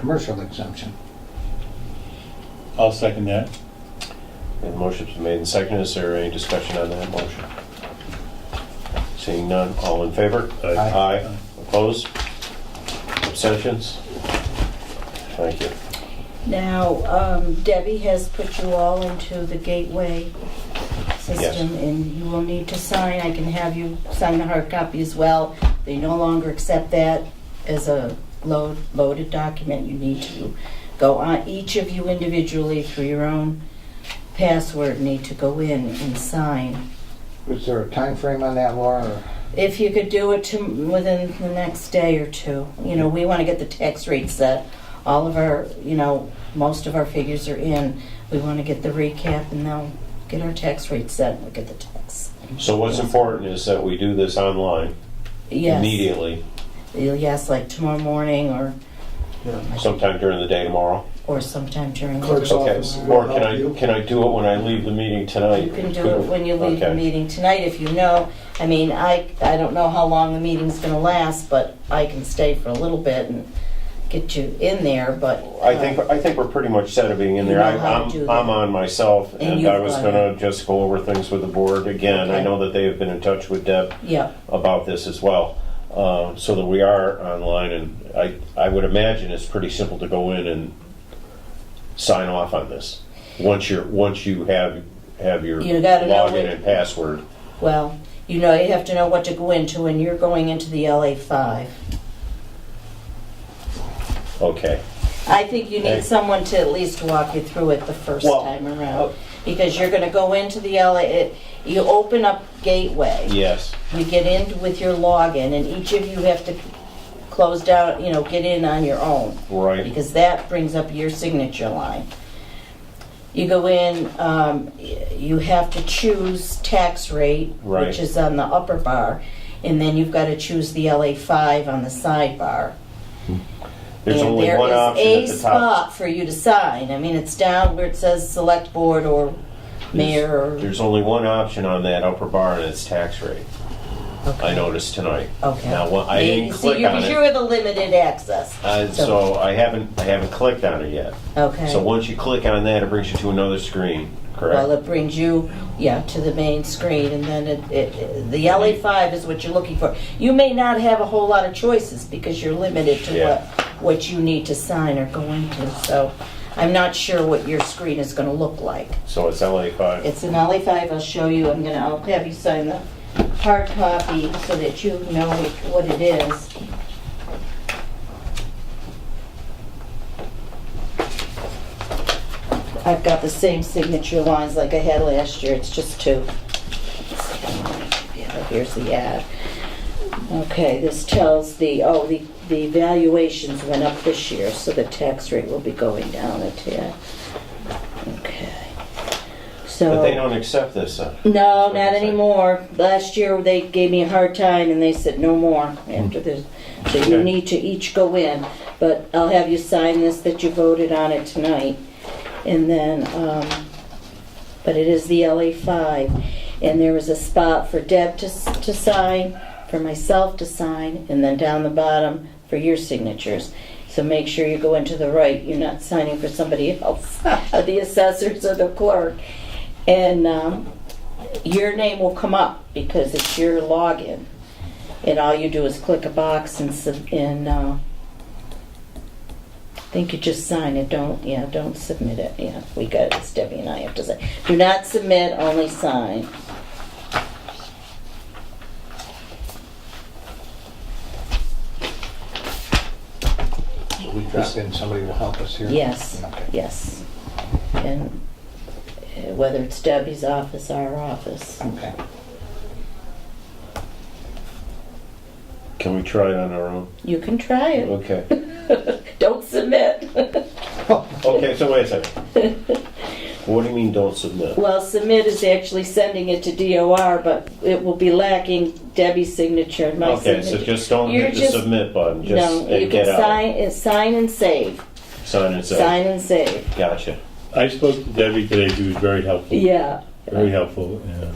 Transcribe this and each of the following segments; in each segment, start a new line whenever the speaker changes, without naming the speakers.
commercial exemption.
I'll second that.
And the motion's been made and seconded. Is there any discussion on that motion? Seeing none, all in favor?
Aye.
Aye. Opposed? Abstentions? Thank you.
Now, um, Debbie has put you all into the gateway system, and you will need to sign, I can have you sign the hard copy as well. They no longer accept that as a load, loaded document, you need to go on, each of you individually through your own password, need to go in and sign.
Is there a time frame on that, Laura? or-
If you could do it to, within the next day or two, you know, we want to get the tax rate set. All of our, you know, most of our figures are in. We want to get the recap and they'll get our tax rate set and we'll get the tax.
So what's important is that we do this online
Yes.
immediately,
Yes, like tomorrow morning or,
sometime during the day tomorrow.
or sometime during. the
Clerk's
Okay.
office. will
Or can
help you.
I, can I do it when I leave the meeting tonight?
You can do it when you leave the
Okay.
meeting tonight if you know. I mean, I, I don't know how long the meeting's going to last, but I can stay for a little bit and get you in there, but.
I think,
uh,
I think we're pretty much set of being in
You
there.
know
I-
how to
I'm,
do that.
I'm on myself,
And
and
you've
I was
gone
gonna just go over things with the board again. I
Okay.
know that they have been in touch with Deb
Yeah,
about this as well, uh, so that we are online, and I, I would imagine it's pretty simple to go in and sign off on this, once you're, once you have, have your
You gotta know
login
what-
and password.
well, you know, you have to know what to go into when you're going into the LA five.
Okay,
I think you
Okay.
need someone to at least walk you through it the first
Well,
time
oh.
around. Because you're gonna go into the LA, it- you open up Gateway.
yes,
you get in with your login, and each of you have to close down, you know, get in on your own,
right,
because that brings up your signature line. You go in, um, y- you have to choose tax rate,
Right.
which is on the upper bar, and then you've got to choose the LA five on the sidebar.
there's
And
only
there
one
is
option at the
a
top.
spot for you to sign. I mean, it's down where it says select board or mayor. or-
There's only one option on that upper bar, and it's tax rate, I noticed tonight.
Okay.
Now, well, I
Maybe-
didn't
see,
click
you-
on
You
it,
have the limited access.
uh, so I haven't, I haven't clicked on it yet.
Okay.
So once you click on that, it brings you to another screen,
Well,
correct?
it brings you, yeah, to the main screen, and then it, it, the LA five is what you're looking for. You may not have a whole lot of choices because you're limited to
Yeah.
what, what you need to sign or go into, so I'm not sure what your screen is gonna look like.
So it's LA five.
It's an LA five, I'll show you, I'm gonna, I'll have you sign the hard copy so that you know what it is. I've got the same signature lines like I had last year, it's just two. Yeah, Here's the ad. Okay, this tells the, oh, the, the valuations went up this year, so the tax rate will be going down a tad. Okay. So.
But they don't accept this, uh,
No,
That's what
not
they say.
anymore. Last year, they gave me a hard time and they said no more after this. So you
Hmm. Okay.
need to each go in, but I'll have you sign this that you voted on it tonight. And then, um, but it is the LA five. And there was a spot for Deb to, s- to sign, for myself to sign, and then down the bottom for your signatures. So make sure you go into the right, you're not signing for somebody else, or the assessors or the clerk. And, um, your name will come up because it's your login. And all you do is click a box and, sub- and, uh, I think you just sign it, don't, yeah, don't submit it, yeah, we got it, it's Debbie and I have to say. Do not submit, only sign.
We drop in, somebody will help us here?
Yes,
Okay.
yes. And uh, whether it's Debbie's office, our office.
Okay.
can we try it on our own?
You can try it.
Okay.
Don't submit.
Okay, so wait a second. What do you mean, don't submit?
Well, submit is actually sending it to DOR, but it will be lacking Debbie's signature and my signature.
Okay, so just don't
You're
hit the
just-
submit button, just,
No, you
and
can
get out.
sign, uh, sign and save,
Sign and say,
sign and save,
gotcha.
I spoke to Debbie today, she was very helpful.
yeah,
Very helpful, yeah.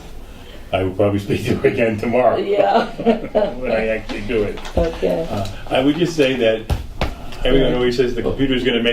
I will probably speak to her again tomorrow.
yeah,
When I actually do it.
okay.
Uh, I would just say that Everyone always says the computer's gonna make